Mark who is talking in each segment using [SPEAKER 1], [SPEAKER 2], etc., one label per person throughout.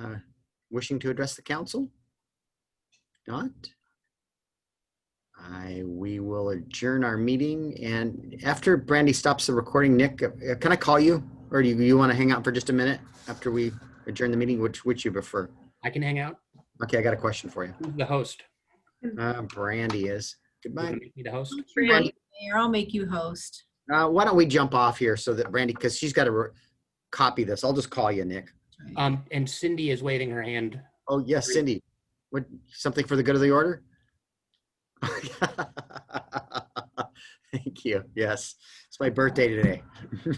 [SPEAKER 1] uh, wishing to address the council? Not? I, we will adjourn our meeting and after Brandy stops the recording, Nick, uh, can I call you? Or do you, you want to hang out for just a minute after we adjourn the meeting? Which, which you prefer?
[SPEAKER 2] I can hang out.
[SPEAKER 1] Okay, I got a question for you.
[SPEAKER 2] Who's the host?
[SPEAKER 1] Uh, Brandy is.
[SPEAKER 2] You gonna
[SPEAKER 1] Goodbye.
[SPEAKER 2] make Me the host?
[SPEAKER 1] Brandy.
[SPEAKER 3] Brandy, Mayor, I'll make you host.
[SPEAKER 1] Uh, why don't we jump off here so that Brandy, because she's got to re- copy this. I'll just call you, Nick.
[SPEAKER 2] Um, and Cindy is waving her hand.
[SPEAKER 1] Oh, yes, Cindy. What, something for the good of the order? Thank you. Yes. It's my birthday today.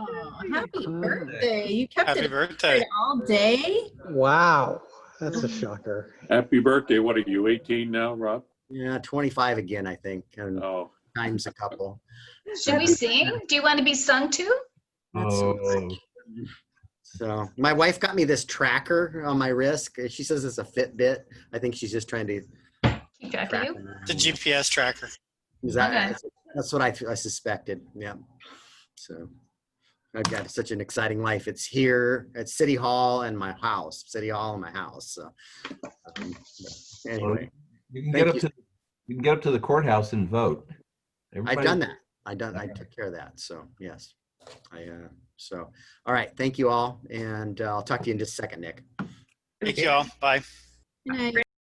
[SPEAKER 3] Oh, happy birthday. You kept
[SPEAKER 4] Happy
[SPEAKER 3] it
[SPEAKER 4] birthday.
[SPEAKER 3] all day?
[SPEAKER 5] Wow, that's a shocker.
[SPEAKER 6] Happy birthday. What are you, 18 now, Rob?
[SPEAKER 1] Yeah, 25 again, I think, and
[SPEAKER 6] Oh,
[SPEAKER 1] times a couple.
[SPEAKER 7] Should we sing? Do you want to be sung to?
[SPEAKER 8] Oh,
[SPEAKER 1] So my wife got me this tracker on my wrist. She says it's a Fitbit. I think she's just trying to
[SPEAKER 7] Keep track of
[SPEAKER 1] track.
[SPEAKER 7] you.
[SPEAKER 1] me.
[SPEAKER 4] The GPS tracker.
[SPEAKER 1] Is that-
[SPEAKER 7] Okay.
[SPEAKER 1] That's what I, I suspected. Yeah. So I've got such an exciting life. It's here at City Hall and my house, City Hall and my house. So um, anyway,
[SPEAKER 8] You can get
[SPEAKER 1] Thank
[SPEAKER 8] up to, you can get up to the courthouse and vote.
[SPEAKER 1] I've
[SPEAKER 8] Everybody-
[SPEAKER 1] done that. I done. I took care of that. So yes, I. Uh, so all right. Thank you all, and uh, I'll talk to you in just a second, Nick.
[SPEAKER 4] Thank you all. Bye.
[SPEAKER 3] Good night.